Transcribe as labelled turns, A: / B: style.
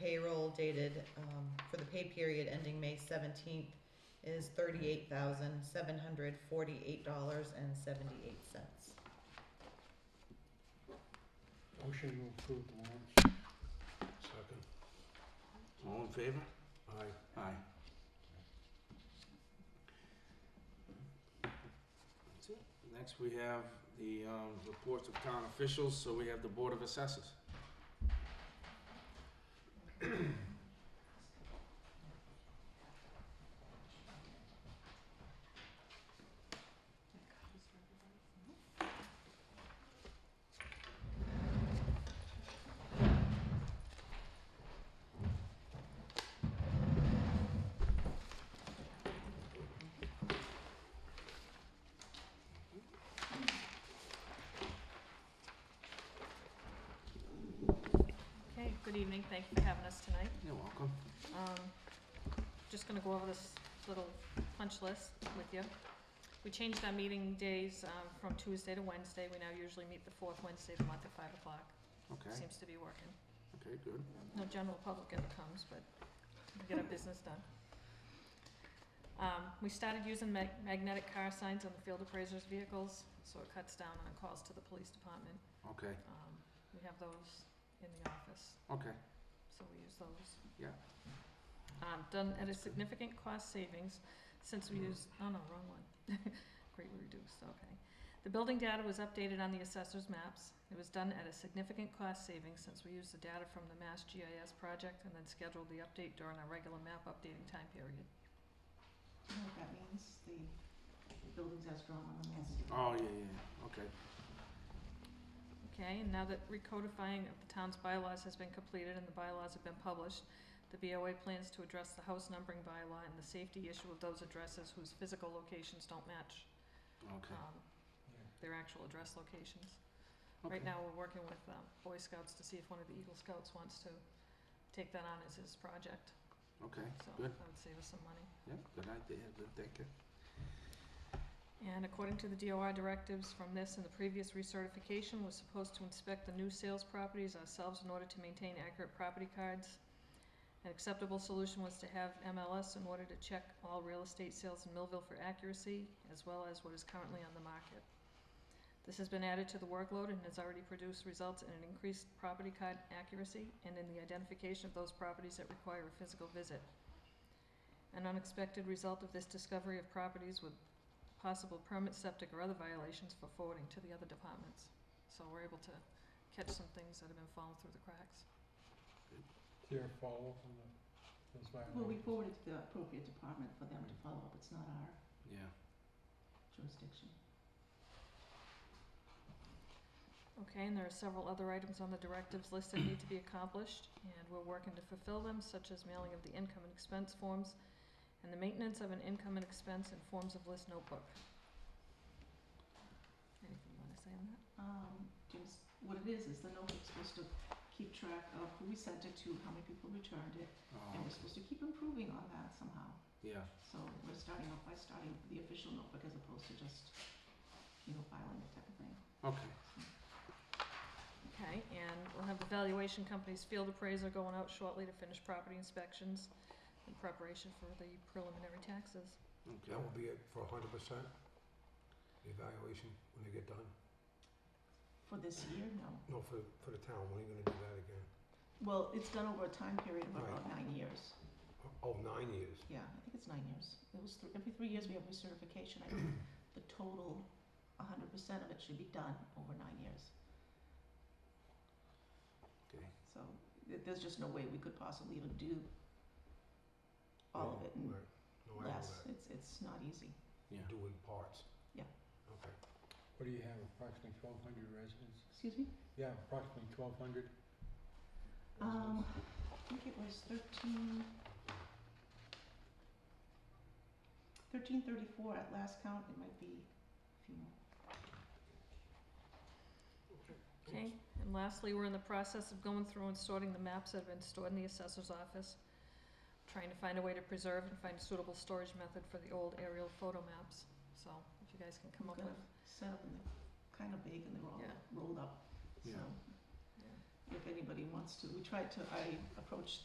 A: payroll dated, um, for the pay period ending May seventeenth is thirty-eight thousand, seven hundred forty-eight dollars and seventy-eight cents.
B: Motion to approve the warrants.
C: Second.
D: All in favor?
C: Aye.
D: Aye. Next, we have the um, reports of town officials, so we have the Board of Assessors.
E: Okay, good evening, thank you for having us tonight.
D: You're welcome.
E: Um, just gonna go over this little punch list with you. We changed our meeting days, um, from Tuesday to Wednesday, we now usually meet the fourth Wednesday of the month at five o'clock,
D: Okay,
E: seems to be working.
D: okay, good.
E: No general public ever comes, but we get our business done. Um, we started using mag- magnetic car signs on the field appraisers' vehicles, so it cuts down on calls to the police department.
D: Okay,
E: Um, we have those in the office,
D: okay,
E: so we use those.
D: Yeah.
E: Um, done at a significant cost savings since we use, oh no, wrong one. Greatly reduced, okay. The building data was updated on the assessor's maps. It was done at a significant cost savings since we used the data from the Mass GIS project and then scheduled the update during our regular map updating time period.
A: That means the buildings are strong on the master.
D: oh, yeah, yeah, yeah, okay,
E: Okay, and now that recodifying of the town's bylaws has been completed and the bylaws have been published, the BOA plans to address the house numbering bylaw and the safety issue of those addresses whose physical locations don't match,
D: okay.
E: um, their actual address locations.
D: okay.
E: Right now, we're working with, um, Boy Scouts to see if one of the Eagle Scouts wants to take that on as his project,
D: Okay,
E: so that
D: Good.
E: would save us some money.
D: yeah, good idea, good thinking.
E: And according to the DOR directives from this and the previous recertification, was supposed to inspect the new sales properties ourselves in order to maintain accurate property cards. An acceptable solution was to have MLS in order to check all real estate sales in Millville for accuracy, as well as what is currently on the market. This has been added to the workload and has already produced results in an increased property card accuracy and in the identification of those properties that require a physical visit. An unexpected result of this discovery of properties with possible permit septic or other violations for forwarding to the other departments. So we're able to catch some things that have been falling through the cracks.
B: Clear follow from the, those violations.
A: Well, we forwarded to the appropriate department for them to follow up, it's not our
D: Yeah,
A: jurisdiction.
E: Okay, and there are several other items on the directives list that need to be accomplished, and we're working to fulfill them, such as mailing of the income and expense forms and the maintenance of an income and expense and forms of list notebook. Anything you wanna say on that?
A: Um, just, what it is, is the notebook's supposed to keep track of who we sent it to, how many people returned it,
D: oh,
A: and we're supposed to keep improving on that somehow.
D: yeah,
A: So we're starting off by starting the official notebook as opposed to just, you know, filing it type of thing.
D: okay,
E: Okay, and we'll have the valuation company's field appraiser going out shortly to finish property inspections in preparation for the preliminary taxes.
C: That
D: okay.
C: will be it for a hundred percent? The evaluation when they get done?
A: For this year, no.
C: No, for, for the town, when are you gonna do that again?
A: Well, it's done over a time period of about nine years.
C: Oh, nine years.
A: Yeah, I think it's nine years. It was thr- every three years we have recertification. I think the total, a hundred percent of it should be done over nine years.
D: Okay.
A: So th- there's just no way we could possibly even do all of it in
C: Right. No, I know
A: less.
C: that.
A: It's, it's not easy.
D: Yeah.
C: Do in parts.
A: Yeah.
C: Okay.
B: What do you have, approximately twelve hundred residents?
A: Excuse me?
B: Yeah, approximately twelve hundred.
A: Um, I think it was thirteen. Thirteen thirty-four at last count, it might be a few more.
E: Okay, and lastly, we're in the process of going through and sorting the maps that have been stored in the assessor's office, trying to find a way to preserve and find a suitable storage method for the old aerial photo maps. So if you guys can come up
A: We've
E: with,
A: got Set up and they're kind of big and they're all
E: Yeah.
A: rolled up, so
D: Yeah.
E: yeah.
A: if anybody wants to, we tried to, I approached